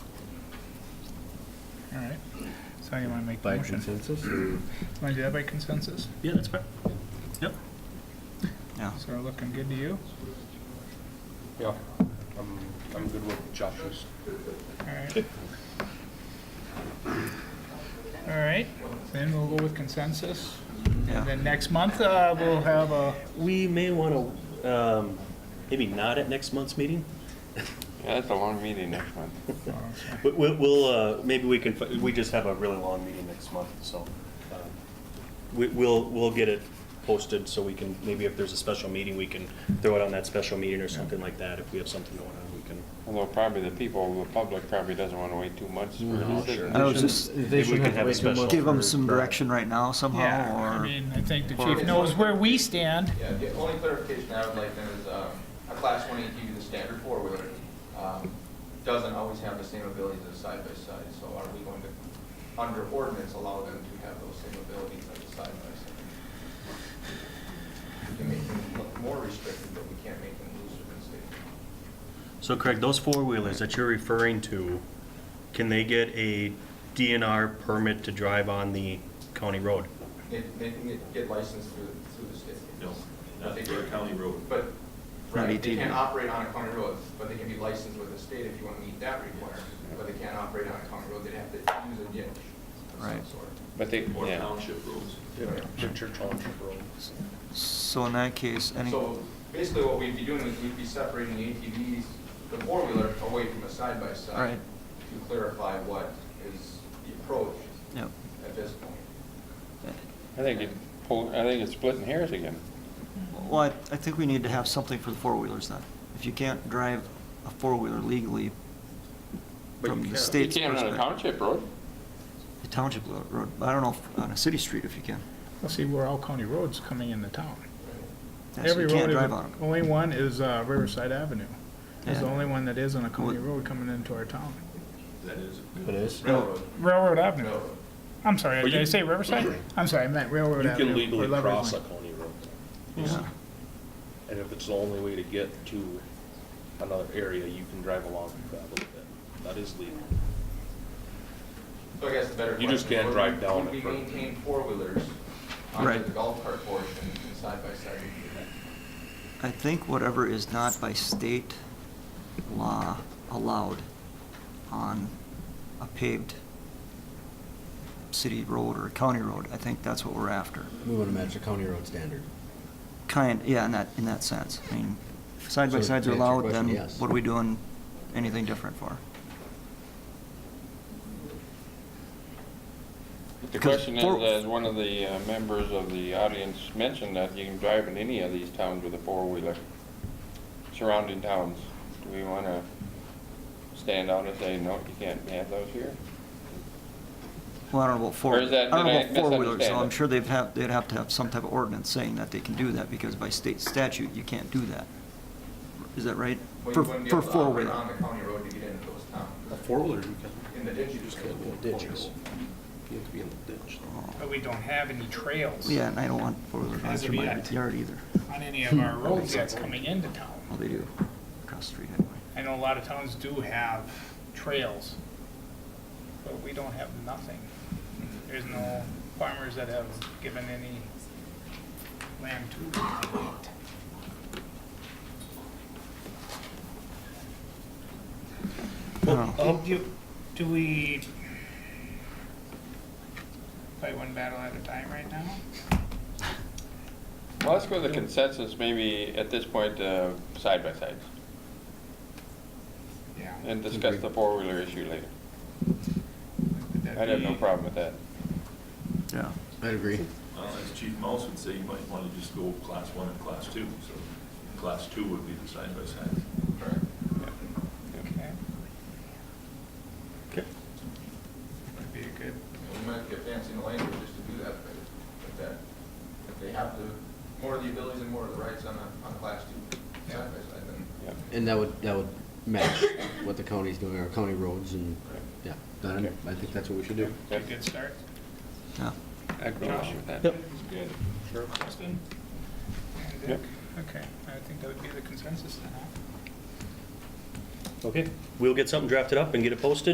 All right. So you want to make the By motion? Want consensus? or- to do that by consensus? Yeah, that's fine. Yep. Yeah. So looking good to you? Yeah, I'm, I'm good with Josh's. All right. All right, then we'll go with consensus. Yeah. And then next month, uh, we'll have a, We may want to, um, maybe not at next month's meeting. Yeah, that's a long meeting next month. oh, sorry. We- we- We'll, uh, maybe we can, fi- we just have a really long meeting next month, so uh, we- we'll, we'll get it posted so we can, maybe if there's a special meeting, we can throw it on that special meeting or something like that. If we have something going on, we can. Although probably the people, the public probably doesn't want to wait two months for Mm-hmm. Mm-hmm. a decision. I was just, They Oh, we should could have Mm. have to wait a two special- months. give them for- some direction right now yeah, I somehow, or, mean, I think the or- chief knows where we stand. Yeah, the only clarification I would like then is, um, a class one ATV, the standard four-wheeler, um, doesn't always have the same abilities as a side-by-side, so are we going to, under ordinance, allow them to have those same abilities as a side-by-side? We can make them look more restricted, but we can't make them looser than state. So Craig, those four-wheelers that you're referring to, can they get a DNR permit to drive on the county road? They, they can get- get licensed through, through the state. No, not for a county road. But, Not right, they ATV. can't operate on a county road, but they can be licensed with the state if you want to meet that requirement, but they can't operate on a county road, they'd have to use a ditch of some Right. sort. But they, Or yeah, township roads. Richard Township Road. so in that case, any, So basically what we'd be doing is we'd be separating the ATVs, the four-wheeler, away from the side-by-side. Right. To clarify what is the approach yep. at this point. I think it, pull- I think it's splitting hairs again. Well, I, I think we need to have something for the four-wheelers then. If you can't drive a four-wheeler legally But you from the can. You state's can't on a perspective. township road. The township lo- road, but I don't know, if on a city street if you can. We'll see where all county roads coming into town. Yeah, so Every You can't road, drive is- on 'em. only one is uh, Riverside Avenue. It's the Yeah. only one that is on a county Well- road coming into our town. That is. It is? Railroad, Railroad Avenue. railroad. I'm sorry, Well, did you- I say Riverside? I'm sorry, I meant Railroad You Avenue. can legally or Leverage cross a Lane. county road. Mm-hmm. Yeah. And if it's the only way to get to another area, you can drive along and travel with it. That is legal. So I guess the better question. You just can't would drive we- down Would we in front. maintain four-wheelers on Right. the golf cart portion and side-by-side? I think whatever is not by state law allowed on a paved city road or county road, I think that's what we're after. We want to match the county road standard. Kind, yeah, in that, in that sense. I mean, side So by to sides answer are your allowed, question, then yes. what are we doing anything different for? The Because question is, four- as one of the uh, members of the audience mentioned, that you can drive in any of these towns with a four-wheeler, surrounding towns. Do we want to stand out and say, no, you can't have those here? Well, I don't know about four, Or I don't is that- know did I about four-wheelers, so misunderstand I'm it? sure they've have, they'd have to have some type of ordinance saying that they can do that, because by state statute, you can't do that. Is that right? Well, For you wouldn't be for able to operate four-wheeler. on the county road to get into those towns. four-wheeler, you can. In the ditch, you just can't. Ditches. You have to be in the ditch. Oh. But we don't have any trails Yeah, and I don't want four-wheeler drive As of through my yet. yard either. on any of our roads that's coming into town. Well, they do, across the street anyway. I know a lot of towns do have trails, but we don't have nothing. There's no farmers that have given any land to it. Well, Um, do, do we fight one battle at a time right now? Well, let's go with the consensus, maybe at this point, uh, side-by-sides, Yeah. and discuss the four-wheeler issue later. I'd have no problem with that. Yeah, I agree. Well, as Chief Mouse would say, you might want to just go class one and class two, so class two would be the side-by-side. Correct. Okay, Okay. that'd be a good. We might get fancy in the language just to do that, but if that, if they have the, more of the abilities and more of the rights on a, on a class two side by side, then. Yeah. And that would, that would match what the county's doing, our county roads and, yeah, then I think that's what we should do. Be a good start. yeah. I'd go along with that. Good. Sure, Justin? Yep. Okay, I think that would be the consensus then, huh? Okay, we'll get something drafted up and get it posted.